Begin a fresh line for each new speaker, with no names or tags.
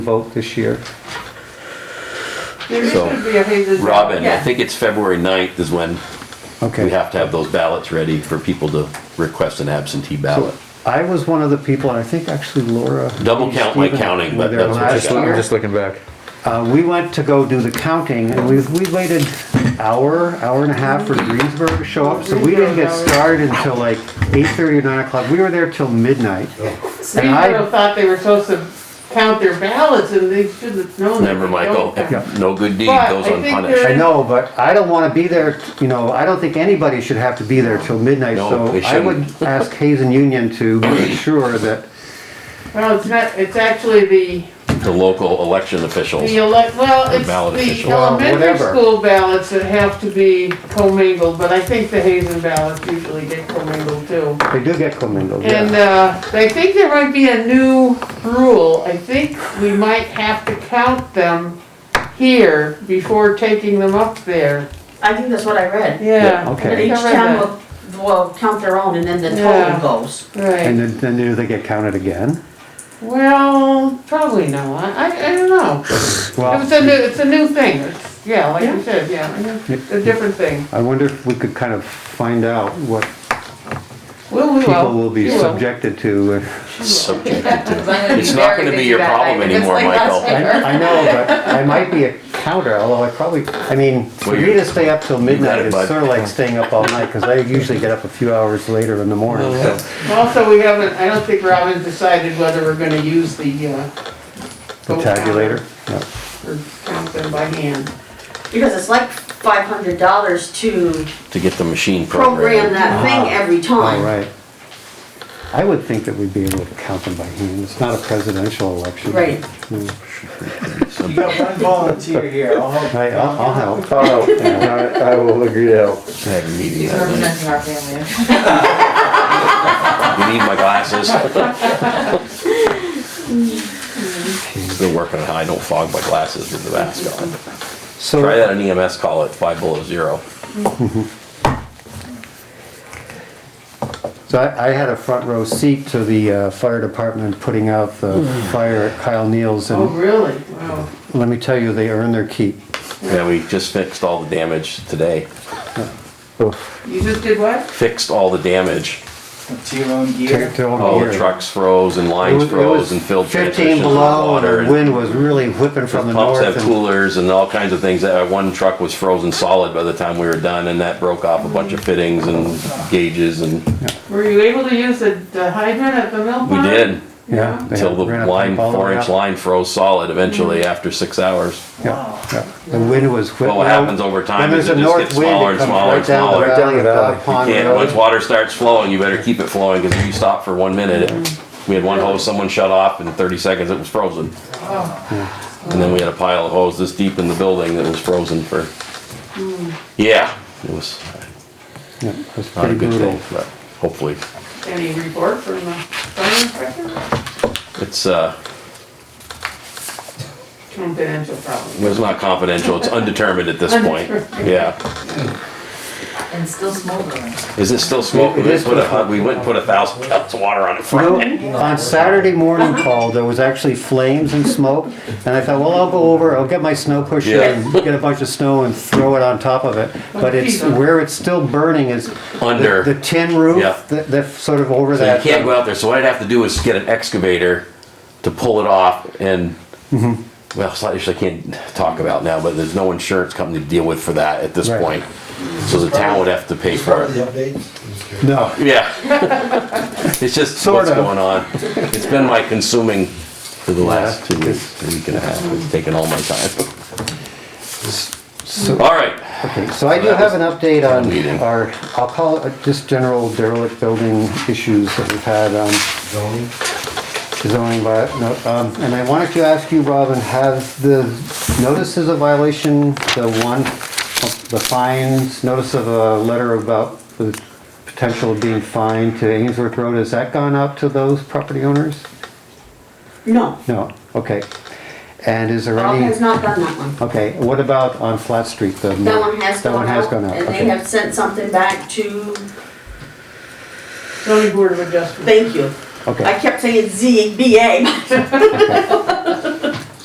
vote this year.
There is
So,
gonna be a Hazel's.
Robin, I
Yeah.
think it's February 9th is when we
Okay.
have to have those ballots ready for people to request an absentee ballot.
I was one of the people, and I think actually Laura.
Double count like counting, but
Were there
that's what you
last
got.
year.
I'm just looking back.
Uh, we went to go do the counting and we, we waited hour, hour and a half for Greensburg to show up. So we didn't get started until like eight thirty or nine o'clock. We were there till midnight. And
People
I,
thought they were supposed to count their ballots and they should have known. that
Remember,
they
Michael,
don't count.
no good deed
But
goes
I think
unpunished.
I know, but I don't wanna be there, you know, I don't think anybody should have to be there till midnight.
No,
So
they
I would
shouldn't.
ask Hazen Union to make sure that,
Well, it's not, it's actually the,
The local election officials.
the elect, well,
Or
it's
ballot
the
official.
Well,
elementary
whatever.
school ballots that have to be commingled, but I think the Hazen ballots usually get commingled too.
they do get commingled,
And,
yeah.
uh, I think there might be a new rule. I think we might have to count them here before taking them up there.
I think that's what I read.
Yeah.
Yeah, okay.
That
I think
each
I read
town
that.
will, will count their own and then the
Yeah.
total goes.
And
Right,
then, then do they get counted again?
well, probably not, I, I don't know.
Well.
It's a new, it's a new thing, it's, yeah, like you said, yeah, it's a different thing.
I wonder if we could kind of find out what
Well, we will.
people will be
We
subjected to.
Subjected to-
gonna
It's
be
not
very
gonna be
busy
your
that
problem
night, if it's
anymore,
like
Michael.
last
I,
year.
I know, but I might be a counter, although I probably, I mean, for
Well,
me
you-
to stay up till midnight
it,
is
bud.
sort of like staying up all night, because I usually get up a few hours later in the morning, so.
Also, we haven't, I don't think Robin decided whether we're gonna use the, uh.
The
vote counter
tabulator, yeah.
Or count them by hand.
Because it's like five hundred dollars to
to get the machine
program
programmed.
that thing every
all
time.
right. I would think that we'd be able to count them by hand, it's not a presidential election.
Right.
You got one volunteer here, I'll help.
I, I'll, I'll help.
Oh, I, I will agree to help.
Had a meeting
He's
that night.
representing our family.
You need my glasses. Been working on how I don't fog my glasses with the mask on. Try
So,
that on EMS call at five below zero.
so I, I had a front row seat to the, uh, fire department putting out the fire at Kyle Neal's,
Oh,
and
really? Wow.
let me tell you, they earn their keep.
Yeah, we just fixed all the damage today.
You just did what?
Fixed all the damage.
To your own gear.
Take their own
All Oh, the
gear.
trucks froze and
oh, It
lines
was- it
froze
was
and filled
Fifteen
transmissions with
below,
water.
the
and
wind was really whipping from the
Pumps
north.
had
and-
coolers and all kinds of things. That uh, One truck was frozen solid by the time we were done and that broke off a bunch of fittings and gauges and
Were you able to use the the hydrant at the mill pond?
we did.
Yeah. they
Until the
ran a
line,
pipe all the way
four inch
up.
line froze solid eventually after six hours.
Wow.
Yeah, The wind was whipping.
Well, what happens over time is it just gets smaller and smaller and smaller.
Right down the valley of Dog Pond
And once
Road.
water starts flowing, you better keep it flowing, because if you stop for one minute, it- we had one hose someone shut off, in thirty seconds it was frozen. And then we had a pile of hose this deep in the building that was frozen for, yeah, it was
Yeah, It was
not a
pretty
good
brutal.
thing, but hopefully,
Any report from the fire inspector?
it's, uh,
Confidential problem.
it's not confidential, it's undetermined at this point,
Undetermined.
yeah.
And still smoldering.
Is it still
It
smoking? We
is
put
smoking.
a, we went and put a thousand gallons of water on it
You know,
Friday.
On Saturday morning, Paul, there was actually flames and smoke, and I thought, well, I'll go over, I'll get my snow pusher
Yeah.
and get a bunch of snow and throw it on top of it. But it's, where it's still burning is
Under.
the tin roof,
Yeah.
that, that sort of over
So you
that.
can't go out there. So what I'd have to do is get an excavator to pull it off and,
Mm-hmm.
well, it's not issue I can't talk about now, but there's no insurance company to deal with for that at this
Right.
point. So the town would have to pay for it.
No.
Yeah. It's just
Sort
what's
of.
going on. It's been my consuming for the last two weeks, a week and a half. It's taken all my time. All right,
Okay, so I do have an update
Meeting.
on our, I'll call it just general derelict building issues that we've had, um, zoning vi- no, um, and I wanted to ask you, Robin, have the notices of violation, the one, the fines, notice of a letter about the potential of being fined to Ainsworth Road, has that gone out to those property owners?
No,
No, okay. And is there
Rob
any?
has not done that one.
Okay, what about on Flat Street? the-
That one has
That one
gone
has gone
out
out,
and
okay.
they have sent something back to,
Zoning Board of Adjustment.
thank you.
Okay.
I kept saying ZBA.